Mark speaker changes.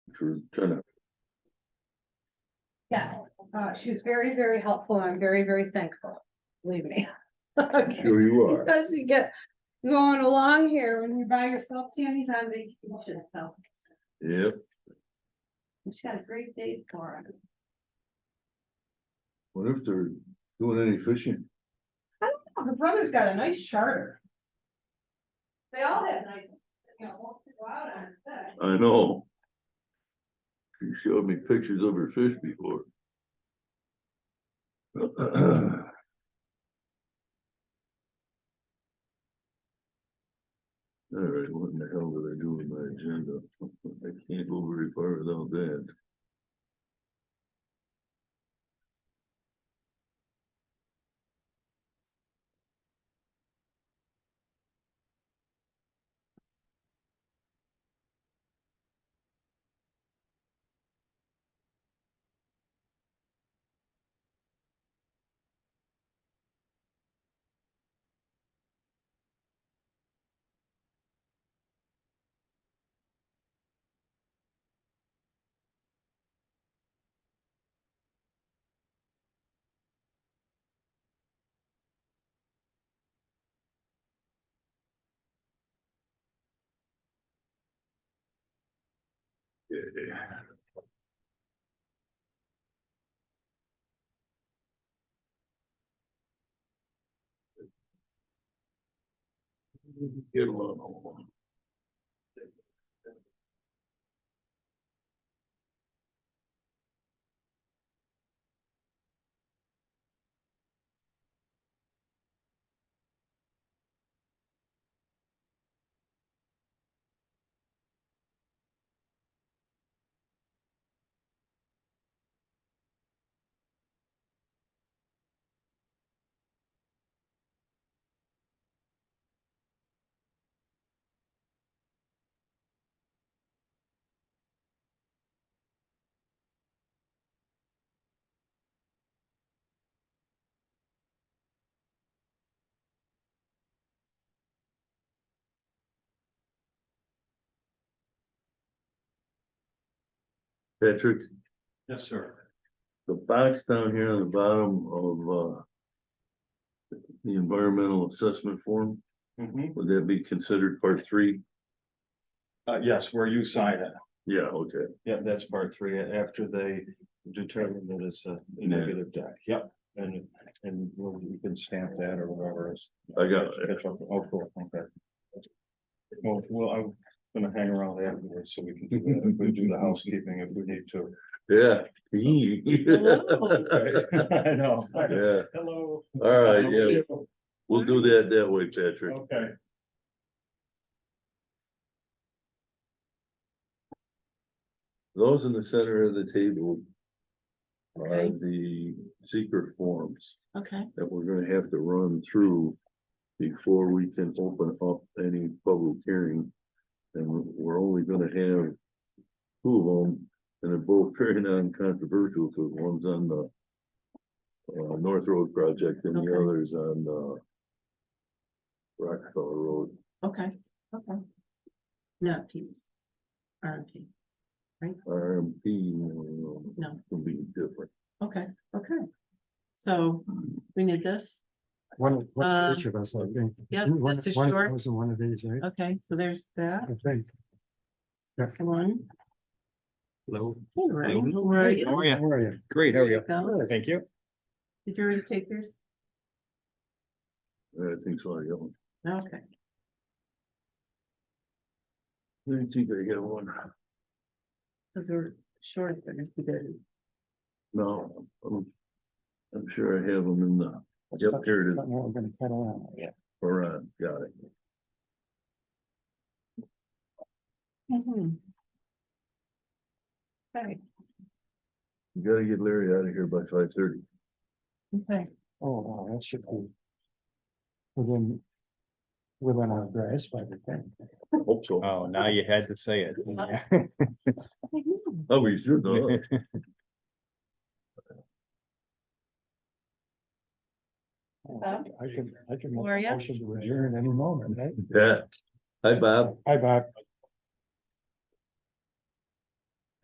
Speaker 1: for Jenna.
Speaker 2: Yes, uh, she was very, very helpful. and I'm very, very thankful. Believe me. Okay,
Speaker 1: Sure you are.
Speaker 2: because you get going along here when you're by yourself, Tammy's on vacation, so
Speaker 1: Yep,
Speaker 2: she's got a great day for her.
Speaker 1: wonder if they're doing any fishing.
Speaker 2: Oh, Her brother's got a nice charter. They all have nice, you know, won't go out on that.
Speaker 1: I know. She showed me pictures of her fish before. All right, what in the hell did I do with my agenda? I can't go very far without that. Yeah. Get a lot of them. Patrick,
Speaker 3: Yes, sir.
Speaker 1: the box down here on the bottom of, uh. The environmental assessment form,
Speaker 3: Mm-hmm.
Speaker 1: would that be considered part three?
Speaker 3: Uh, yes, where you sign it.
Speaker 1: Yeah, okay,
Speaker 3: Yeah, that's part three, uh, after they determine that it's a negative deck, yep. And, and you can stamp that or whatever is.
Speaker 1: I got it.
Speaker 3: Catch up, oh, cool, okay. Well, well, I'm gonna hang around afterwards so we can do that, if we do the housekeeping if we need to.
Speaker 1: Yeah.
Speaker 3: I know.
Speaker 1: Yeah,
Speaker 3: Hello.
Speaker 1: all right, yeah, we'll do that that way, Patrick.
Speaker 3: Okay.
Speaker 1: Those in the center of the table. Are the secret forms
Speaker 2: Okay,
Speaker 1: that we're gonna have to run through. Before we can open up any public hearing. And we're- we're only gonna have. Two of them, and they're both very non-controversial, because one's on the. Uh, North Road project and the
Speaker 2: Okay.
Speaker 1: other's on, uh. Rockefeller Road.
Speaker 2: okay, okay. No, peace. RMP,
Speaker 1: RMP, you know,
Speaker 2: No.
Speaker 1: will be different.
Speaker 2: okay, okay. So we need this,
Speaker 4: One, one
Speaker 2: Uh,
Speaker 4: for each of us, I think.
Speaker 2: yeah,
Speaker 4: One-
Speaker 2: this is
Speaker 4: one
Speaker 2: short.
Speaker 4: goes in one of these, right?
Speaker 2: okay, so there's that,
Speaker 4: I think.
Speaker 2: that's the one.
Speaker 3: Hello.
Speaker 2: All right,
Speaker 3: Hello.
Speaker 2: all right,
Speaker 3: How are you?
Speaker 4: Where are you?
Speaker 3: Great, how are you?
Speaker 2: go.
Speaker 3: Thank you.
Speaker 2: Did you already take yours?
Speaker 1: I think so, I got one.
Speaker 2: Okay,
Speaker 1: Let me see if I got one.
Speaker 2: because we're short, but if we did,
Speaker 1: No, I'm, I'm sure I have them in the, Yep, here it is.
Speaker 4: Don't know, I'm gonna cut around.
Speaker 1: or, uh, got it.
Speaker 2: Mhm. Okay,
Speaker 1: You gotta get Larry out of here by five thirty.
Speaker 2: okay,
Speaker 4: Oh, wow, that should be. Within. Within our grasp, I would think.
Speaker 1: Hope so.
Speaker 3: Uh,
Speaker 5: Oh, now you had to say it.
Speaker 1: Oh, we should, though.
Speaker 4: I can, I can. make
Speaker 2: Where are
Speaker 4: a
Speaker 2: you?
Speaker 4: Motion to adjourn any moment, right?
Speaker 1: Yeah. Hi, Bob.
Speaker 4: Hi, Bob.